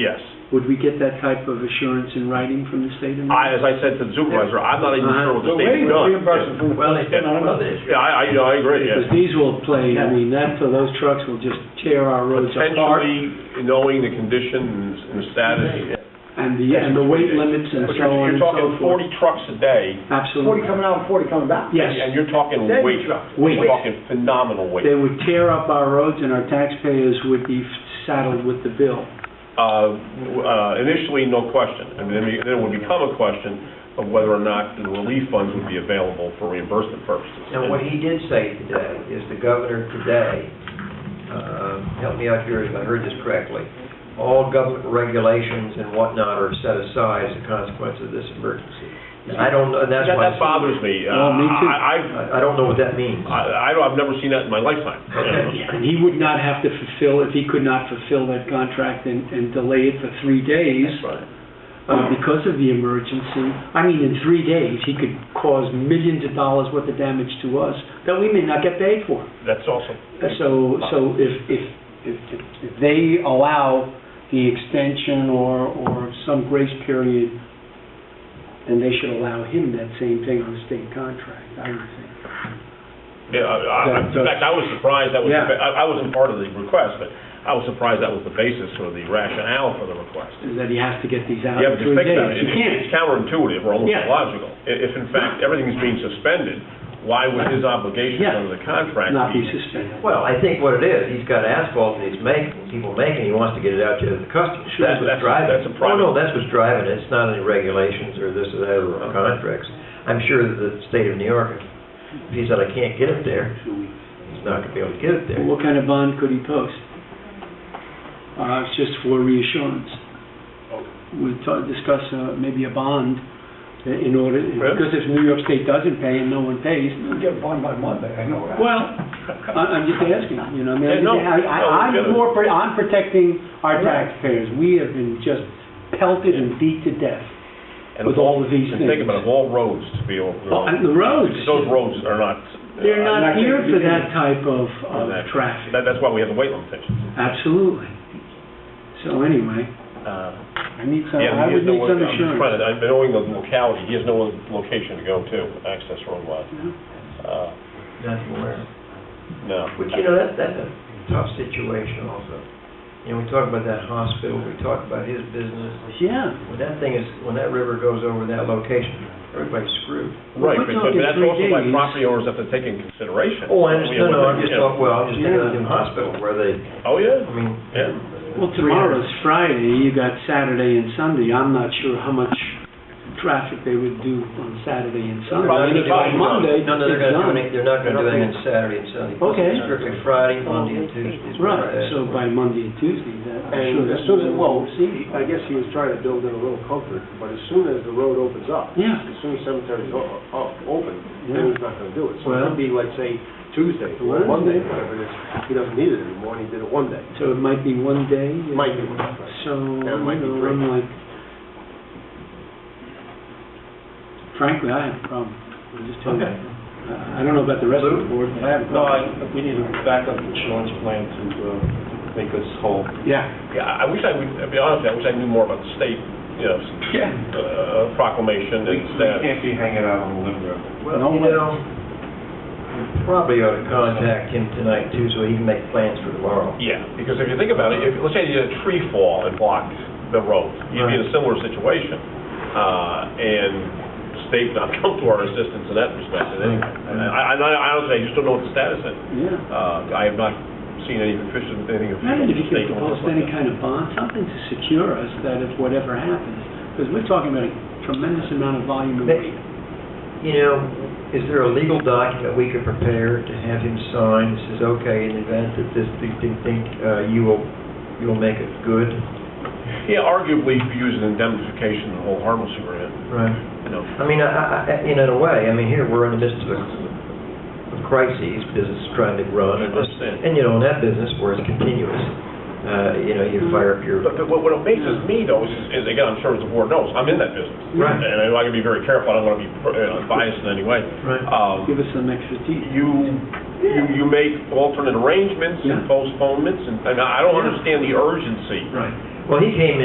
Yes. Would we get that type of assurance in writing from the state? I, as I said to the supervisor, I'm not even sure what the Uh-huh. We're state's waiting for done. reimbursement from the Well, feds, been on another issue. Yeah, I, I, you know, I agree, Because yes. these will play, I mean, that, for those trucks will just tear our roads apart. Potentially knowing the conditions and the status. And the, and the weight limits and But you're- so on You're and so talking forth. forty trucks a day, Forty Absolutely. coming out and forty coming back. Yes, and you're talking Dead weight. trucks. Weight. You're talking phenomenal weight. they would tear up our roads and our taxpayers would be saddled with the bill. Uh, uh, initially, no question, and then it- then it would become a question of whether or not the relief funds would be available for reimbursement purposes. Now, what he did say today is the governor today, um, help me out here if I heard this correctly, all government regulations and whatnot are set aside as a consequence of this emergency. And I don't, know. that's That, why, that bothers me. Uh, Well, Oh, me too. I, I've- I I don't know what that means. I, I don't, I've never seen that in my lifetime. Okay. And he would not have to fulfill, if he could not fulfill that contract and, and delay it for three days That's right. uh, because of the emergency, I mean, in three days, he could cause millions of dollars worth of damage to us that we may not get paid for. Uh, That's also. So, so if, if, if, if they allow the extension or, or some grace period, then they should allow him that same thing on a state contract, I would think. Yeah, I- I- That- in fact, I was surprised that was, Yeah. the ba- I I wasn't part of the request, but I was surprised that was the basis or the rationale for the request. Is that he has to get these out Yeah, in but you three think about days. it, it- He can't. it's counterintuitive or almost Yeah. illogical. I- If in fact everything's being suspended, why would his obligations Yeah. under the contract Not be be? suspended. Well, I think what it is, he's got asphalt and he's making, people making, he wants to get it out to the customers. Sure, That's what's that's- driving. it. that's a private- No, no, that's what's driving it. It's not any regulations or this or that or contracts. I'm sure that the state of New York, if he said, I can't get it there, he's not gonna be able to get it there. What kind of bond could he post? Uh, it's just for reassurance. We ta- discuss, uh, maybe a bond i- in order, Really? because if New York State doesn't pay and no one pays, You get a bond by Monday, I know that. well, I- I'm just asking, you know, I mean, Yeah, I'm no, just- I- no, I- we get it. I'm more, pro- I'm protecting our Right. taxpayers. We have been just pelted and beat to death. And with of all of these and Think things. about it, of all roads to be over. Oh, and the roads. Those roads are not. They're uh, not not here gonna for do that type of, on that- of traffic. that- That's why we have the weight limitations. Absolutely. So anyway, Uh, I need some, Yeah, I he has would no, need I'm some just trying assurance. to, I'm knowing the locality, he has no other location to go to, access road wise. Uh, Nothing aware. no. But you know, that, that's a tough situation also. You know, we talk about that hospital, we talk about his business. Yeah. When that thing is, when that river goes over that location, everybody's screwed. Right, we're but talking but that's three also why days. property owners have to take in consideration. Oh, I understand, no, I'm just Yeah. talking, well, I'm just thinking of the Yeah. new hospital where they, Oh, yeah, I mean. yeah. Well, tomorrow's Friday, you got Saturday and Sunday. I'm not sure how much traffic they would do on Saturday and Sunday. Probably But By not. Monday, No, no, they're it's gonna do done. any, they're not gonna do anything on Saturday and Sunday. Okay. Strictly Friday, Monday and Tuesday. is what Right, it is. so by Monday and Tuesday, that, I'm sure. And as that's soon as, what well, we'll see. I guess he was trying to build in a little comfort, but as soon as the road opens up, Yeah. as soon as cemetery's o- o- open, Yeah. then he's not gonna do it. So it Well. could be like, say, Tuesday, or Wednesday. Monday, whatever it is, he doesn't need it anymore, and he did it one day. So it might be one day. It might be one day. So, you Yeah, it might be know, three. I'm like, frankly, I have a problem. I'm just telling you. Okay. I I don't know about the rest of the board, but I have a No, problem. I, we need a backup insurance plan to uh, make us whole. Yeah. Yeah, I I wish I would, I'll be honest, I wish I knew more about the state, you know, s- Yeah. uh, proclamation We and status. can't be hanging out on the limb. Well, you know, we probably ought to contact him tonight too, so he can make plans for tomorrow. Yeah, because if you think about it, if, let's say you had a tree fall and blocked the road, you'd be in a similar situation. Uh, and state not come to our assistance in that respect, in any, and I, I, I honestly, I just don't know what the status is. Yeah. Uh, I have not seen any official, anything official. Imagine if you could state on propose this like any that. kind of bond, something to secure us that if whatever happens, because we're talking about a tremendous amount of volume and weight. You know, is there a legal document we could prepare to have him sign that says, okay, in the event that this, thing thing thing, uh, you will, you will make it good? Yeah, arguably, if you use an indemnification, the whole harmless agreement, Right. you know. I mean, I, I, I- in a way, I mean, here, we're in the midst of a a crisis, business is trying to run, and, this- Understand. and you know, in that business where it's continuous, uh, you know, you fire up your But but what what amazes me though is, is again, I'm sure as the board knows, I'm in that business. Right. And I gotta be very careful, I don't wanna be you know, biased in any way. Right. Um, Give us some expertise. you, you, you make alternate arrangements and Yeah. postponements, and, and I don't Yeah. understand the urgency. Right. Well, he came in.